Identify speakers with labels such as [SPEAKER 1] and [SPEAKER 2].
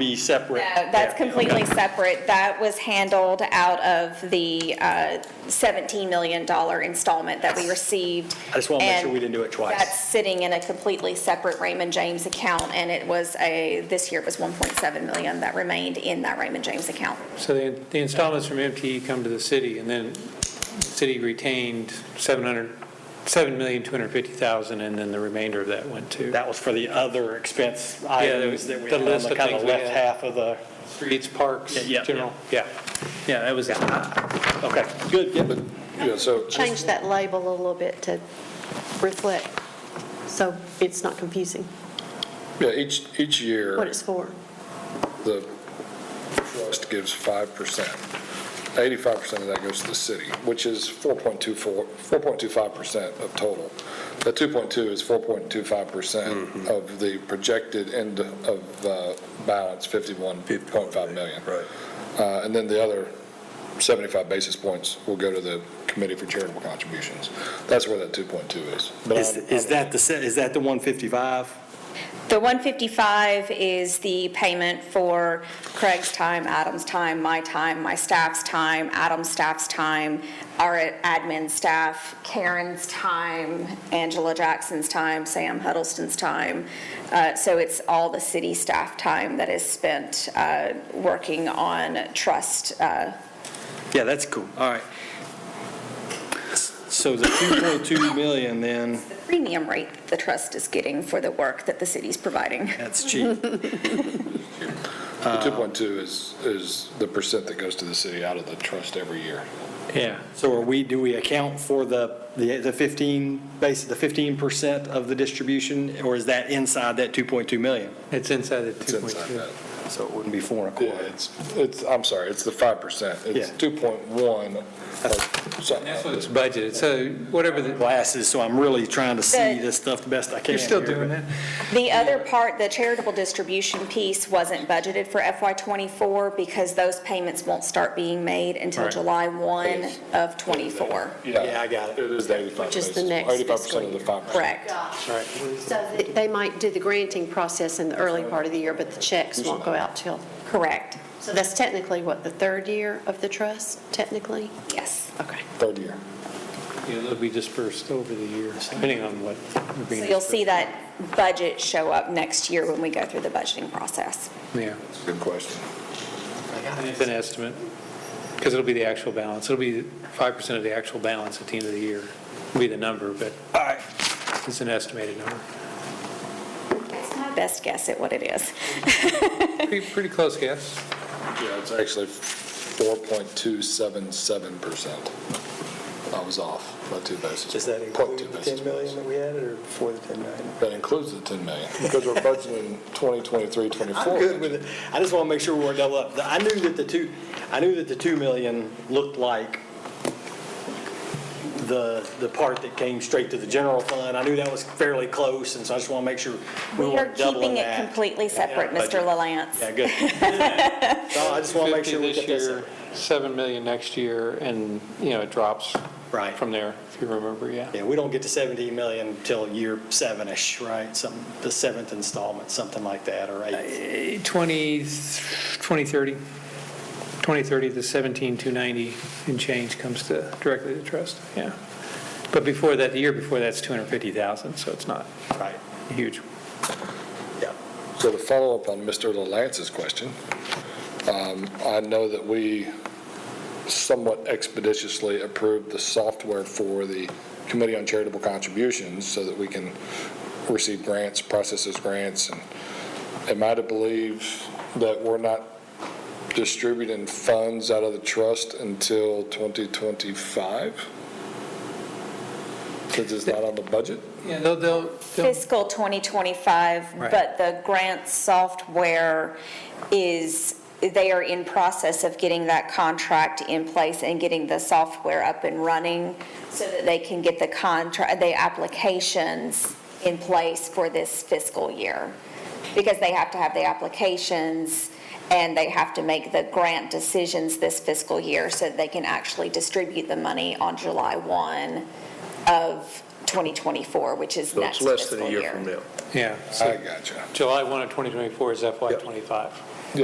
[SPEAKER 1] be separate.
[SPEAKER 2] Uh, That's
[SPEAKER 1] Yeah, okay.
[SPEAKER 2] completely separate. That was handled out of the uh, $17 million installment that we received.
[SPEAKER 1] I just wanna make sure
[SPEAKER 2] And
[SPEAKER 1] we didn't do it twice.
[SPEAKER 2] That's sitting in a completely separate Raymond James account, and it was a, this year it was 1.7 million that remained in that Raymond James account.
[SPEAKER 3] So the the installments from MTE come to the city, and then the city retained 700, 7,250,000, and then the remainder of that went to
[SPEAKER 1] That was for the other expense items that we
[SPEAKER 3] the
[SPEAKER 1] had on
[SPEAKER 3] list
[SPEAKER 1] the
[SPEAKER 3] of
[SPEAKER 1] kind of
[SPEAKER 3] things we
[SPEAKER 1] left
[SPEAKER 3] had.
[SPEAKER 1] half of the,
[SPEAKER 3] streets, parks,
[SPEAKER 1] Yeah, yeah,
[SPEAKER 3] general. Yeah, yeah, that was it.
[SPEAKER 1] okay, good, good.
[SPEAKER 4] Yeah, so,
[SPEAKER 5] change that label a little bit to reflect, so it's not confusing
[SPEAKER 4] yeah, each, each
[SPEAKER 5] what
[SPEAKER 4] year,
[SPEAKER 5] it's for.
[SPEAKER 4] the trust gives 5%. 85% of that goes to the city, which is 4.24, 4.25% of total. The 2.2 is 4.25% of the projected end of uh, balance, 51.5 million.
[SPEAKER 6] Right.
[SPEAKER 4] Uh, And then the other 75 basis points will go to the Committee for Charitable Contributions. That's where that 2.2 is. But
[SPEAKER 1] Is,
[SPEAKER 4] I'm-
[SPEAKER 1] is that the, se- is that the 155?
[SPEAKER 2] The 155 is the payment for Craig's time, Adam's time, my time, my staff's time, Adam's staff's time, our admin staff, Karen's time, Angela Jackson's time, Sam Huddleston's time. Uh, So it's all the city staff time that is spent uh, working on trust uh,
[SPEAKER 6] Yeah, that's cool, all right. So the 2.2 million then,
[SPEAKER 2] the premium rate that the trust is getting for the work that the city's providing.
[SPEAKER 6] that's cheap.
[SPEAKER 4] The 2.2 is, is the percent that goes to the city out of the trust every year.
[SPEAKER 3] Yeah,
[SPEAKER 6] So are we, do we account for the, the the 15, base, the 15% of the distribution, or is that inside that 2.2 million?
[SPEAKER 3] it's inside the
[SPEAKER 4] It's inside
[SPEAKER 3] 2.2.
[SPEAKER 4] that.
[SPEAKER 6] So it wouldn't be four and a
[SPEAKER 4] Yeah,
[SPEAKER 6] quarter.
[SPEAKER 4] it's, it's, I'm sorry, it's the 5%. It's
[SPEAKER 6] Yeah.
[SPEAKER 4] 2.1. or something.
[SPEAKER 3] And That's what it's budgeted, so whatever the,
[SPEAKER 6] Glasses, so I'm really trying to see
[SPEAKER 2] The-
[SPEAKER 6] this stuff the best I can.
[SPEAKER 3] you're still
[SPEAKER 6] here,
[SPEAKER 3] doing that?
[SPEAKER 2] The other part, the charitable distribution piece, wasn't budgeted for FY '24 because those payments won't start being made until
[SPEAKER 3] Right.
[SPEAKER 2] July 1 of '24.
[SPEAKER 6] Yeah, I got it.
[SPEAKER 4] It is the 85.
[SPEAKER 5] Which is the
[SPEAKER 4] basis-
[SPEAKER 5] next
[SPEAKER 4] 85% of the 5%.
[SPEAKER 2] Correct.
[SPEAKER 5] So th- they might do the granting process in the early part of the year, but the checks won't go out till,
[SPEAKER 2] Correct.
[SPEAKER 5] so that's technically what, the third year of the trust, technically?
[SPEAKER 2] Yes.
[SPEAKER 5] Okay.
[SPEAKER 4] Third year.
[SPEAKER 3] Yeah, It'll be dispersed over the years, depending on what.
[SPEAKER 2] So
[SPEAKER 3] we're being
[SPEAKER 2] you'll see
[SPEAKER 3] dispersed.
[SPEAKER 2] that budget show up next year when we go through the budgeting process.
[SPEAKER 3] Yeah.
[SPEAKER 4] Good question.
[SPEAKER 3] It's an estimate, because it'll be the actual balance. It'll be 5% of the actual balance at the end of the year, will be the number, but
[SPEAKER 6] All right,
[SPEAKER 3] it's an estimated number.
[SPEAKER 2] It's my best guess at what it is.
[SPEAKER 3] Pretty, pretty close guess.
[SPEAKER 4] Yeah, it's actually 4.277%. I was off by two basis.
[SPEAKER 7] Does that
[SPEAKER 4] point
[SPEAKER 7] include
[SPEAKER 4] two
[SPEAKER 7] the
[SPEAKER 4] basis
[SPEAKER 7] 10 million
[SPEAKER 4] points.
[SPEAKER 7] that we added, or before the 10 million?
[SPEAKER 4] That includes the 10 million, because we're budgeting 2023, 24.
[SPEAKER 6] I'm good with it. I just want to make sure we weren't double up. The- I knew that the two, I knew that the 2 million looked like the, the part that came straight to the general fund. I knew that was fairly close, and so I just want to make sure we
[SPEAKER 2] We are
[SPEAKER 6] weren't doubling
[SPEAKER 2] keeping it
[SPEAKER 6] that.
[SPEAKER 2] completely separate,
[SPEAKER 6] Yeah,
[SPEAKER 2] Mr.
[SPEAKER 6] budget.
[SPEAKER 2] LaLance.
[SPEAKER 6] Yeah, good. So I just want to make
[SPEAKER 3] 50
[SPEAKER 6] sure we
[SPEAKER 3] this
[SPEAKER 6] get this.
[SPEAKER 3] year, 7 million next year, and, you know, it drops
[SPEAKER 6] Right.
[SPEAKER 3] from there, if you remember, yeah.
[SPEAKER 6] Yeah, we don't get to 17 million until year seven-ish, right? Some, the seventh installment, something like that, or eighth.
[SPEAKER 3] Eh, 20, 2030, 2030, the 17,290 and change comes to, directly to trust, yeah. But before that, the year before that's 250,000, so it's not
[SPEAKER 6] Right,
[SPEAKER 3] huge.
[SPEAKER 6] yeah.
[SPEAKER 4] So to follow up on Mr. LaLance's question, um, I know that we somewhat expeditiously approved the software for the Committee on Charitable Contributions so that we can receive grants, process those grants, and am I to believe that we're not distributing funds out of the trust until 2025? Because it's not on the budget?
[SPEAKER 3] Yeah, they'll, they'll. they'll-
[SPEAKER 2] fiscal 2025,
[SPEAKER 3] Right.
[SPEAKER 2] but the grant software is, they are in process of getting that contract in place and getting the software up and running so that they can get the contract, the applications in place for this fiscal year. Because they have to have the applications and they have to make the grant decisions this fiscal year so that they can actually distribute the money on July 1 of 2024, which is
[SPEAKER 7] So it's
[SPEAKER 2] next
[SPEAKER 7] less than
[SPEAKER 2] fiscal
[SPEAKER 7] a year from
[SPEAKER 2] year.
[SPEAKER 7] now.
[SPEAKER 3] Yeah. so-
[SPEAKER 4] I gotcha.
[SPEAKER 3] July 1 of 2024 is FY '25.